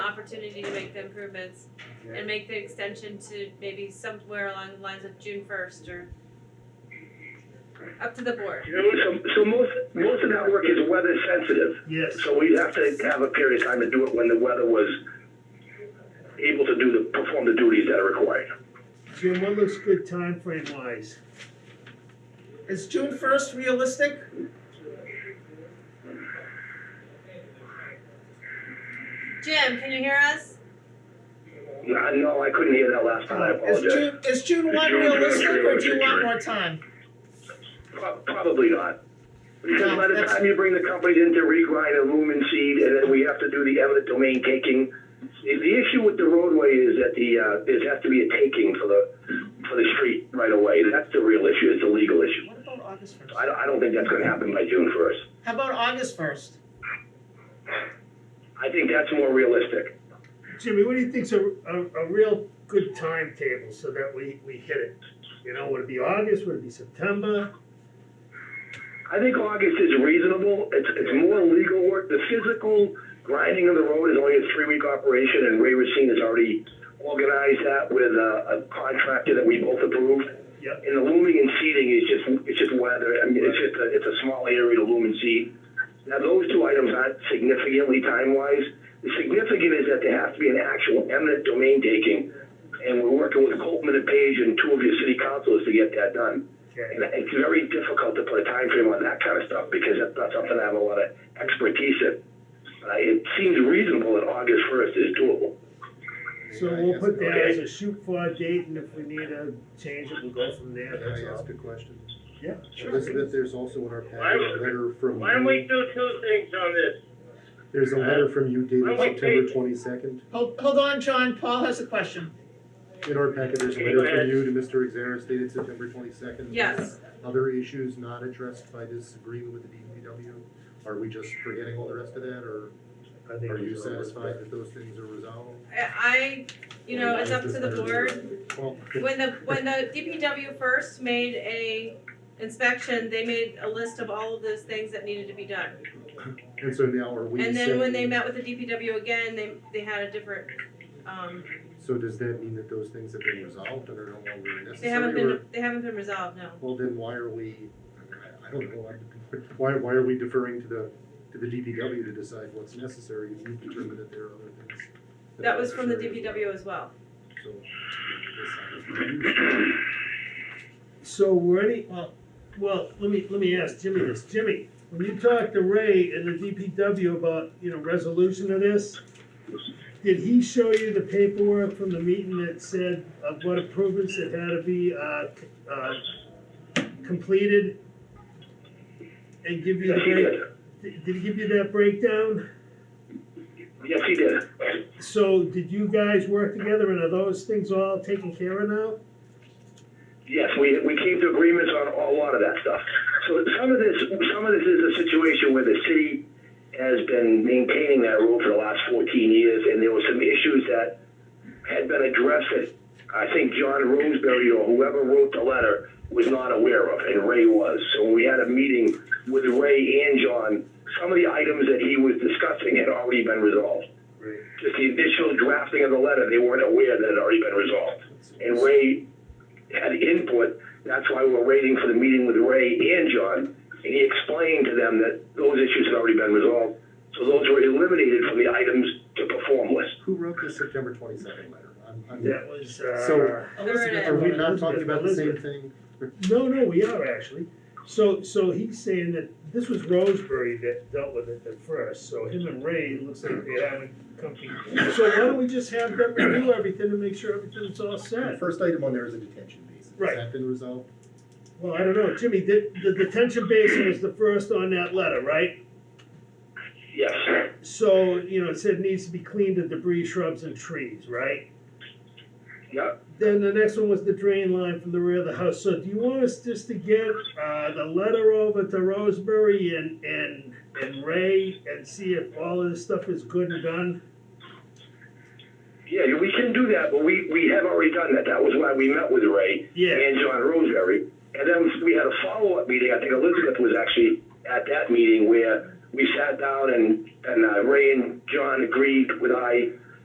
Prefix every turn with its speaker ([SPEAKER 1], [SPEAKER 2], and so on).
[SPEAKER 1] opportunity to make the improvements
[SPEAKER 2] Yeah.
[SPEAKER 1] and make the extension to maybe somewhere along the lines of June first or up to the board.
[SPEAKER 3] You know, so, so most, most of that work is weather sensitive,
[SPEAKER 2] Yes,
[SPEAKER 3] so we'd have to have a period of time to do it when the weather was able to do the, perform the duties that are required.
[SPEAKER 2] Jim, what looks good timeframe wise?
[SPEAKER 4] Is June first realistic?
[SPEAKER 1] Jim, can you hear us?
[SPEAKER 3] I know, I couldn't hear that last time, I
[SPEAKER 4] Is
[SPEAKER 3] apologize.
[SPEAKER 4] June, is June
[SPEAKER 3] Is
[SPEAKER 4] one
[SPEAKER 3] June
[SPEAKER 4] realistic or do you
[SPEAKER 3] realistic,
[SPEAKER 4] want
[SPEAKER 3] right?
[SPEAKER 4] more time?
[SPEAKER 3] Pro- Probably not. Because
[SPEAKER 4] No,
[SPEAKER 3] by the
[SPEAKER 4] that's-
[SPEAKER 3] time you bring the companies in to regrind and lumen seed, and then we have to do the eminent domain taking, the, the issue with the roadway is that the, uh, there has to be a taking for the, for the street right away. That's the real issue, it's a legal issue.
[SPEAKER 4] What about August first?
[SPEAKER 3] I don't, I don't think that's gonna happen by June first.
[SPEAKER 4] How about August first?
[SPEAKER 3] I think that's more realistic.
[SPEAKER 2] Jimmy, what do you think's a, a, a real good timetable so that we, we hit it? You know, would it be August, would it be September?
[SPEAKER 3] I think August is reasonable. It's, it's more legal work. The physical grinding of the road is only a three week operation, and Ray Racine has already organized that with a, a contractor that we both approved.
[SPEAKER 2] Yep.
[SPEAKER 3] And the looming and seeding is just it's just weather. I mean, it's just a, it's a small area to loom and seed. Now those two items aren't significantly time wise. The significant is that there has to be an actual eminent domain taking, and we're working with Coltman and Page and two of your city councilors to get that done. And
[SPEAKER 2] Okay,
[SPEAKER 3] it's very difficult to put a time frame on that kind of stuff because that's not something I have a lot of expertise in. Uh, it seems reasonable that August first is doable.
[SPEAKER 2] so we'll put that
[SPEAKER 3] Okay.
[SPEAKER 2] as a shoot for date and if we need a change it, we'll go from there,
[SPEAKER 5] Can
[SPEAKER 2] that's
[SPEAKER 5] I
[SPEAKER 2] all.
[SPEAKER 5] ask a question?
[SPEAKER 2] Yeah,
[SPEAKER 5] Elizabeth, there's also in our
[SPEAKER 6] Why
[SPEAKER 5] package
[SPEAKER 6] don't-
[SPEAKER 5] a letter from
[SPEAKER 6] Why don't we
[SPEAKER 5] you,
[SPEAKER 6] do two things on this?
[SPEAKER 5] there's a letter from you
[SPEAKER 6] Why
[SPEAKER 5] dated
[SPEAKER 6] don't we
[SPEAKER 5] September
[SPEAKER 6] take-
[SPEAKER 5] twenty-second.
[SPEAKER 4] Hold, hold on, John, Paul has a question.
[SPEAKER 5] In our packet, there's a
[SPEAKER 6] Okay,
[SPEAKER 5] letter
[SPEAKER 6] go
[SPEAKER 5] from
[SPEAKER 6] ahead.
[SPEAKER 5] you to Mr. Exares dated September twenty-second.
[SPEAKER 1] Yes.
[SPEAKER 5] Other issues not addressed by this agreement with the DPW, are we just forgetting all the rest of that, or
[SPEAKER 2] I think
[SPEAKER 5] are you
[SPEAKER 2] it's all right.
[SPEAKER 5] satisfied that those things are resolved?
[SPEAKER 1] I, I, you know, it's up to the board.
[SPEAKER 5] Well,
[SPEAKER 1] When the, when the DPW first made a inspection, they made a list of all of those things that needed to be done.
[SPEAKER 5] and so now are we
[SPEAKER 1] And then when they
[SPEAKER 5] saying,
[SPEAKER 1] met with the DPW again, they, they had a different, um,
[SPEAKER 5] so does that mean that those things have been resolved and are no longer
[SPEAKER 1] they haven't
[SPEAKER 5] necessary, or,
[SPEAKER 1] been, they haven't been resolved, no.
[SPEAKER 5] well, then why are we, I- I don't know, I'm- why, why are we deferring to the, to the DPW to decide what's necessary, and you've determined that there are other things?
[SPEAKER 1] That was from the
[SPEAKER 5] necessary?
[SPEAKER 1] DPW as well.
[SPEAKER 5] So,
[SPEAKER 2] So ready,
[SPEAKER 4] Well-
[SPEAKER 2] well, let me, let me ask Jimmy this, Jimmy, when you talked to Ray and the DPW about, you know, resolution of this, did he show you the paperwork from the meeting that said of what improvements that had to be, uh, c- uh, completed? And give you
[SPEAKER 3] Yes,
[SPEAKER 2] the
[SPEAKER 3] he did.
[SPEAKER 2] break, did did he give you that breakdown?
[SPEAKER 3] Yes, he did.
[SPEAKER 2] So did you guys work together and are those things all taken care of now?
[SPEAKER 3] Yes, we, we came to agreements on a lot of that stuff. So some of this, some of this is a situation where the city has been maintaining that road for the last 14 years, and there were some issues that had been addressed that I think John Roseberry or whoever wrote the letter was not aware of, and Ray was. So we had a meeting with Ray and John. Some of the items that he was discussing had already been resolved.
[SPEAKER 2] Right.
[SPEAKER 3] Just the initial drafting of the letter, they weren't aware that it had already been resolved and Ray had input. That's why we're waiting for the meeting with Ray and John. And he explained to them that those issues had already been resolved. So those were eliminated from the items to perform list.
[SPEAKER 5] Who wrote the September twenty-second letter? I'm, I'm,
[SPEAKER 2] That was, uh.
[SPEAKER 5] So-
[SPEAKER 4] Elizabeth,
[SPEAKER 5] are we not
[SPEAKER 2] Elizabeth,
[SPEAKER 5] talking about the same
[SPEAKER 2] Elizabeth.
[SPEAKER 5] thing?
[SPEAKER 2] No, no, we are actually. So, so he's saying that this was Roseberry that dealt with it at first, so him and Ray, it looks like they haven't come to. So why don't we just have them review everything and make sure everything's all
[SPEAKER 5] The
[SPEAKER 2] set?
[SPEAKER 5] first item on there is a detention basin.
[SPEAKER 2] Right.
[SPEAKER 5] Has that been resolved?
[SPEAKER 2] Well, I don't know, Jimmy, the, the detention basin was the first on that letter, right?
[SPEAKER 3] Yes.
[SPEAKER 2] So, you know, it said needs to be cleaned of debris, shrubs and trees, right?
[SPEAKER 3] Yep.
[SPEAKER 2] Then the next one was the drain line from the rear of the house. So do you want us just to get uh, the letter over to Roseberry and, and, and Ray and see if all of this stuff is good and done?
[SPEAKER 3] Yeah, we can do that, but we, we have already done that. That was why we met with Ray
[SPEAKER 2] Yeah,
[SPEAKER 3] and John Roseberry. And then we had a follow-up meeting. I think Elizabeth was actually at that meeting where we sat down and, and uh, Ray and John agreed with I